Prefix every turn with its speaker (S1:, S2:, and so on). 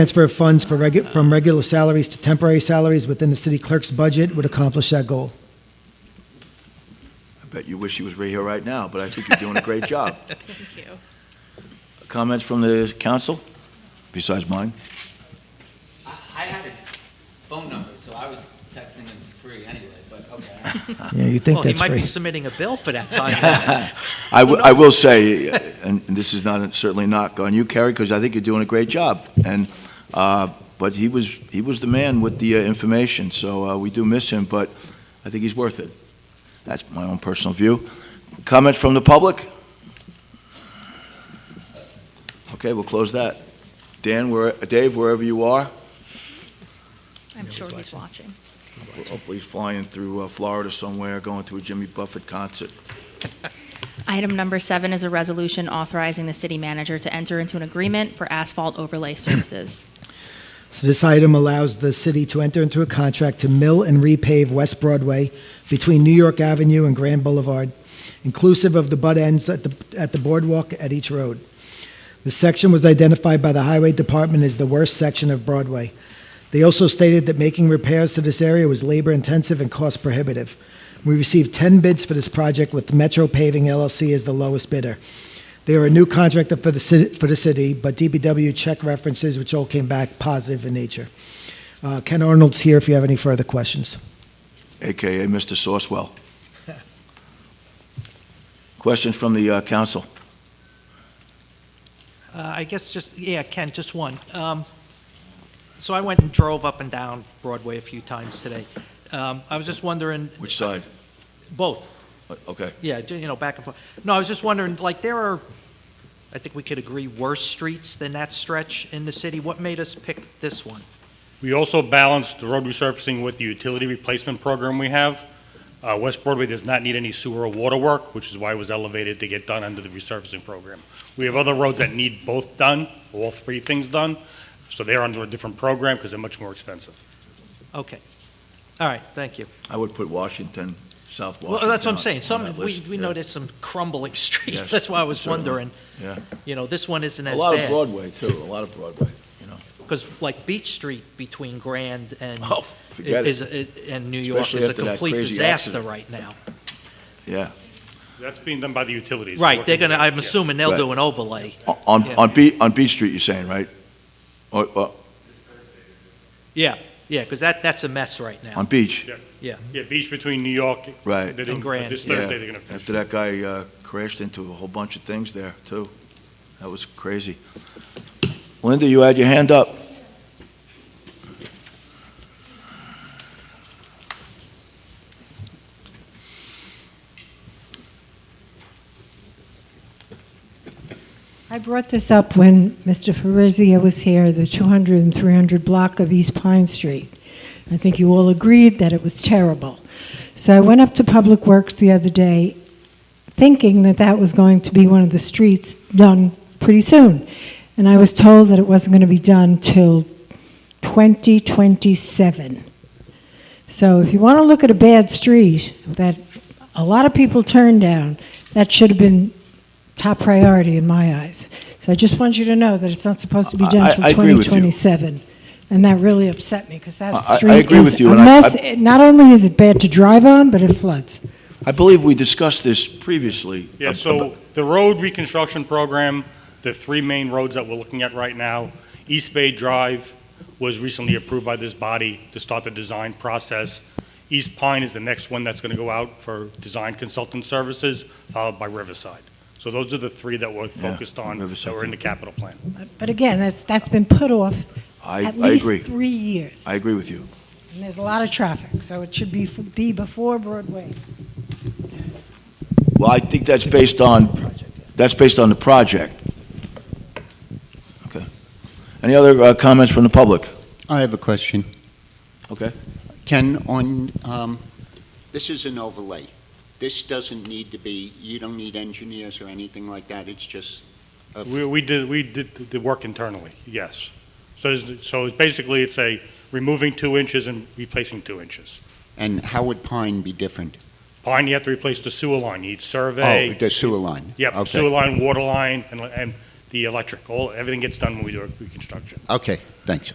S1: Transfer of funds for regu- from regular salaries to temporary salaries within the city clerk's budget would accomplish that goal.
S2: I bet you wish he was right here right now, but I think you're doing a great job.
S3: Thank you.
S2: Comments from the council, besides mine?
S4: I I had his phone number, so I was texting him free anyway, but okay.
S1: Yeah, you think
S5: Ah. Well, he
S1: that's
S5: might be
S1: free.
S5: submitting a bill for that contract.
S2: I wi- I will say, uh, and this is not, certainly not on you, Kerry, because I think you're doing a great job. And, uh, but he was, he was the man with the uh, information, so uh, we do miss him, but I think he's worth it. That's my own personal view. Comment from the public? Okay, we'll close that. Dan, where, Dave, wherever you are,
S3: I'm sure he's watching.
S2: we're hopefully flying through uh, Florida somewhere, going to a Jimmy Buffett concert.
S3: Item number seven is a resolution authorizing the city manager to enter into an agreement for asphalt overlay services.
S1: So this item allows the city to enter into a contract to mill and repave West Broadway between New York Avenue and Grand Boulevard, inclusive of the butt ends at the, at the boardwalk at each road. The section was identified by the Highway Department as the worst section of Broadway. They also stated that making repairs to this area was labor-intensive and cost prohibitive. We received 10 bids for this project with Metro Paving LLC as the lowest bidder. They are a new contractor for the city, for the city, but DBW check references, which all came back positive in nature. Uh, Ken Arnold's here if you have any further questions.
S2: AKA Mr. Sourcewell. Questions from the uh, council?
S5: Uh, I guess just, yeah, Ken, just one. Um, So I went and drove up and down Broadway a few times today. Um, I was just wondering,
S2: Which side?
S5: both,
S2: Uh, Okay.
S5: yeah, ju- you know, back and forth. No, I was just wondering, like, there are, I think we could agree, worse streets than that stretch in the city. What made us pick this one?
S6: We also balanced the road resurfacing with the utility replacement program we have. Uh, West Broadway does not need any sewer or water work, which is why it was elevated to get done under the resurfacing program. We have other roads that need both done, all three things done, so they're under a different program because they're much more expensive.
S5: Okay. All right, thank you.
S2: I would put Washington, South Washington.
S5: Well, that's what I'm
S2: on-
S5: saying.
S2: on
S5: Some,
S2: that
S5: we
S2: list.
S5: we
S2: Yeah.
S5: noticed some crumbling
S2: Yes,
S5: streets. That's why I was
S2: certainly.
S5: wondering,
S2: Yeah.
S5: you know, this one isn't
S2: A
S5: as
S2: lot of
S5: bad.
S2: Broadway, too, a lot of Broadway.
S5: Because like Beach Street between Grand and
S2: Oh, forget
S5: is,
S2: it.
S5: is, and New York
S2: Especially
S5: is a
S2: after that
S5: complete
S2: crazy
S5: disaster
S2: accident.
S5: right now.
S2: Yeah.
S6: That's being done by the utilities.
S5: Right, they're gonna, I'm
S6: Yeah.
S5: assuming they'll
S2: Right.
S5: do an overlay.
S2: On,
S5: Yeah.
S2: on Beach, on Beach Street, you're saying, right? Or, or,
S5: Yeah, yeah, because that, that's a mess right now.
S2: on Beach,
S6: Yeah.
S5: Yeah.
S6: Yeah, beach between New York.
S2: Right.
S6: they didn't-
S5: And Grand.
S6: This
S2: yeah.
S6: Thursday, they're going to finish.
S2: After that guy uh, crashed into a whole bunch of things there, too. That was crazy. Linda, you had your hand up.
S7: I brought this up when Mr. Fabrizio was here, the 200 and 300 block of East Pine Street. I think you all agreed that it was terrible. So I went up to Public Works the other day, thinking that that was going to be one of the streets done pretty soon. And I was told that it wasn't going to be done till 2027. So if you want to look at a bad street that a lot of people turn down, that should have been top priority in my eyes. So I just want you to know that it's not supposed to be
S2: I- I-
S7: done till
S2: I agree with you.
S7: 2027. And that really upset me because
S2: I-
S7: that
S2: I- I
S7: street
S2: agree
S7: is
S2: with you,
S7: a
S2: and I-
S7: mess.
S2: I-
S7: It- Not only is it bad to drive on, but it floods.
S2: I believe we discussed this previously. Um,
S6: Yeah,
S2: ab-
S6: so the road reconstruction program, the three main roads that we're looking at right now, East Bay Drive was recently approved by this body to start the design process. East Pine is the next one that's going to go out for design consultant services, followed by Riverside. So those are the three that we're
S2: Yeah,
S6: focused on, that
S2: Riverside's
S6: were in
S2: in-
S6: the capital plan.
S7: But- But again, that's, that's been put off
S2: I,
S7: at
S2: I
S7: least
S2: agree.
S7: three years.
S2: I agree with you.
S7: And there's a lot of traffic, so it should be, f- be before Broadway.
S2: Well, I think that's based on, that's based on the project. Okay. Any other uh, comments from the public?
S8: I have a question.
S2: Okay.
S8: Ken, on, um, this is an overlay. This doesn't need to be, you don't need engineers or anything like that, it's just, a-
S6: We, we did, we did the work internally, yes. So, there's- so it's basically, it's a removing two inches and replacing two inches.
S8: and how would Pine be different?
S6: Pine, you have to replace the sewer line, you need survey.
S8: Oh, the sewer line?
S6: Yep,
S8: Okay.
S6: sewer line, water line, and, and the electric, all, everything gets done when we do a reconstruction.
S8: Okay, thanks.